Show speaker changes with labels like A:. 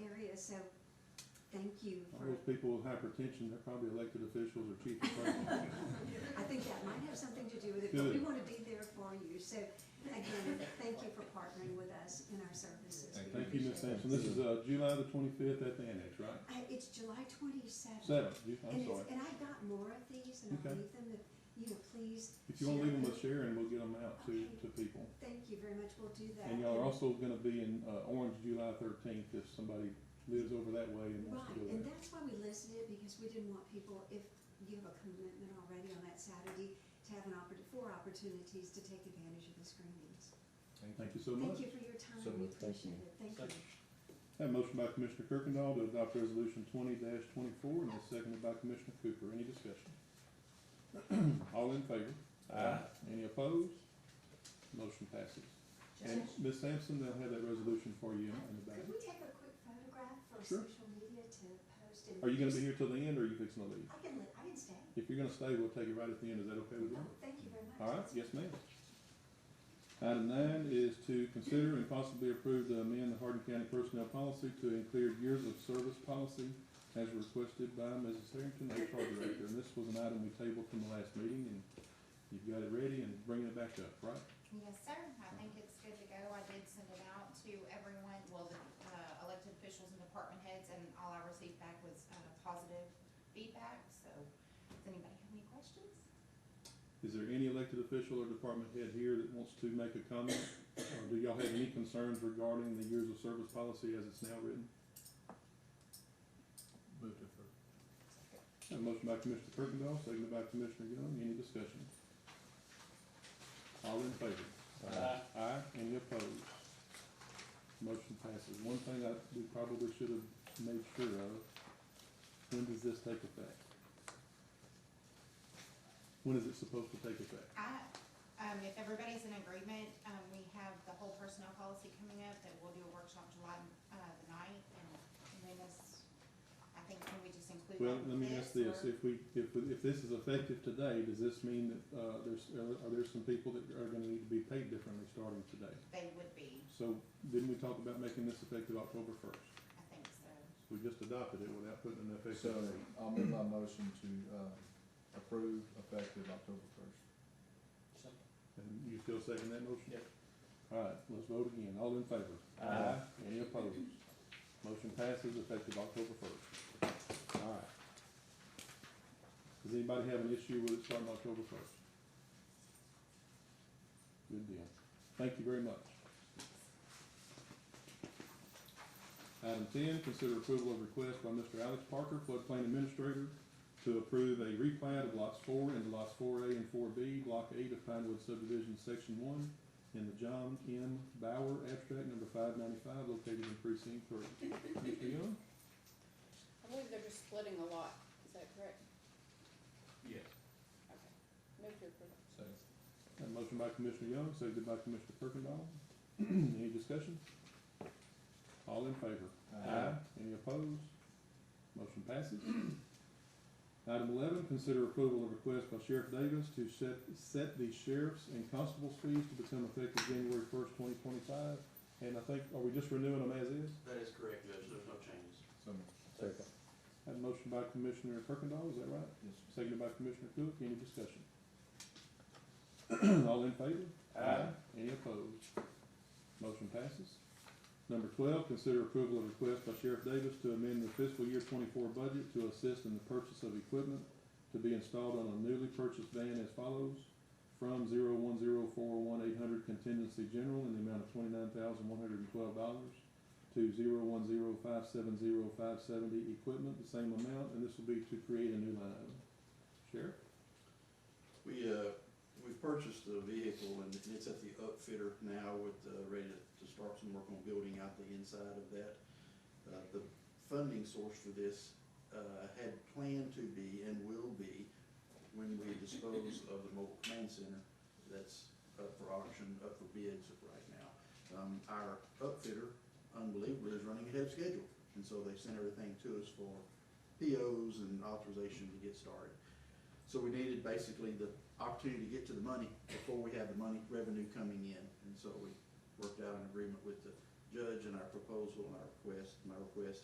A: area, so thank you
B: All
A: for,
B: those people with hypertension, they're probably elected officials or chief attorneys.
A: I think that might have something to do with it, but we
B: Good.
A: want to be there for you. So again, thank you for partnering with us in our services. We
B: Thank you,
A: appreciate
B: Ms.
A: it.
B: Sampson. This is, uh, July the twenty-fifth at the annex, right?
A: Uh, It's July twenty-seventh.
B: Seventh, You-
A: And
B: I'm
A: it's,
B: sorry.
A: and I got more of these and I'll
B: Okay.
A: leave them, if- you know, please.
B: If you wanna leave them with
A: share
B: Sharon, we'll get them out to, to people.
A: Thank you very much, we'll do that.
B: And y'all are also gonna be in, uh, Orange July thirteenth if somebody lives over that way and wants to
A: Right,
B: go
A: and
B: there.
A: that's why we listed it, because we didn't want people, if you have a commitment already on that Saturday, to have an oppor, four opportunities to take advantage of the screenings.
B: Thank you so
A: Thank
B: much.
A: you for your time,
C: So
A: we
C: moved. Thank you.
A: appreciate it, thank you.
B: Have a motion by Commissioner Kirkendall to adopt resolution twenty twenty-four and it's seconded by Commissioner Cooper. Any discussion? All in favor?
C: Uh,
B: Aye. Any opposed? Motion passes. And
A: Judge,
B: Ms. Sampson, they'll have that resolution for you in the back.
A: Could we take a quick photograph for
B: Sure.
A: social media to post and?
B: Are you gonna be here till the end or are you fixing to leave?
A: I can, li- I can stay.
B: If you're gonna stay, we'll take it right at the end. Is that okay with
A: Oh,
B: you?
A: thank you very much.
B: All right, yes, ma'am. Item nine is to consider and possibly approve to amend the Hardin County Personnel Policy to include years of service policy as requested by Mrs. Harrington, HR Director. And this was an item we tabled from the last meeting, and you've got it ready and bringing it back up, right?
D: Yes, sir. I think it's good to go. I did send it out to everyone, well, the uh, elected officials and department heads, and all I received back was uh, positive feedback. So, does anybody have any questions?
B: Is there any elected official or department head here that wants to make a comment? Or do y'all have any concerns regarding the years of service policy as it's now written?
C: Move to approve.
B: Have a motion by Commissioner Kirkendall, seconded by Commissioner Young, any discussion? All in favor?
C: Aye.
B: Aye, any opposed? Motion passes. One thing I, we probably should have made sure of, when does this take effect? When is it supposed to take effect?
D: I, um, if everybody's in agreement, um, we have the whole personnel policy coming up, that we'll do a workshop July, uh, the ninth, and and then this, I think, can we just include
B: Well,
D: that
B: let
D: with
B: me
D: this?
B: ask this,
D: or-
B: if we, if, if this is effective today, does this mean that, uh, there's, are there some people that are gonna need to be paid differently starting today?
D: They would be,
B: So, didn't we talk about making this effective October first?
D: I think so.
B: We just adopted it without putting an
C: So,
B: effective date.
C: I'll move my motion to, uh, approve effective October first.
B: And you still second that motion?
C: Yep.
B: All right, let's vote again. All in favor?
C: Aye.
B: Any opposed? Motion passes effective October first. All right. Does anybody have an issue with it starting October first? Good deal. Thank you very much. Item ten, consider approval of request by Mr. Alex Parker, floodplain administrator, to approve a replat of lots four and lots four A and four B, block eight of Pinewood subdivision, section one, in the John M. Bauer abstract number five ninety-five, located in precinct three. Mr. Young?
E: I believe they're just splitting a lot, is that correct? Yes. Okay, move to approve.
C: Second.
B: Got a motion by Commissioner Young, seconded by Commissioner Kirkendall. Any discussion? All in favor?
C: Uh,
B: Uh, Any opposed? Motion passes. Item eleven, consider approval of request by Sheriff Davis to set, set the sheriff's and constable's fees to become effective January first, twenty twenty-five. And I think, are we just renewing them as is?
F: That is correct, Judge, there's no changes.
C: So, moved.
F: Second.
B: Had a motion by Commissioner Kirkendall, is that right?
C: yes,
B: Seconded by Commissioner Cook, any discussion? All in favor?
C: Aye.
B: Any opposed? Motion passes. Number twelve, consider approval of request by Sheriff Davis to amend the fiscal year twenty-four budget to assist in the purchase of equipment to be installed on a newly purchased van as follows. From zero one zero four one eight hundred contingency general in the amount of twenty-nine thousand one hundred and twelve dollars to zero one zero five seven zero five seventy equipment, the same amount, and this will be to create a new line item. Sheriff?
F: We, uh, we've purchased the vehicle and it's at the upfitter now with, uh, ready to to start some work on building out the inside of that. Uh, the funding source for this, uh, had planned to be and will be when we dispose of the mobile command center that's up for auction, up for bids right now. Um, our upfitter, unbelievably, is running ahead of schedule, and so they sent everything to us for POs and authorization to get started. So we needed basically the opportunity to get to the money before we had the money, revenue coming in. And so we worked out an agreement with the judge and our proposal and our request. My request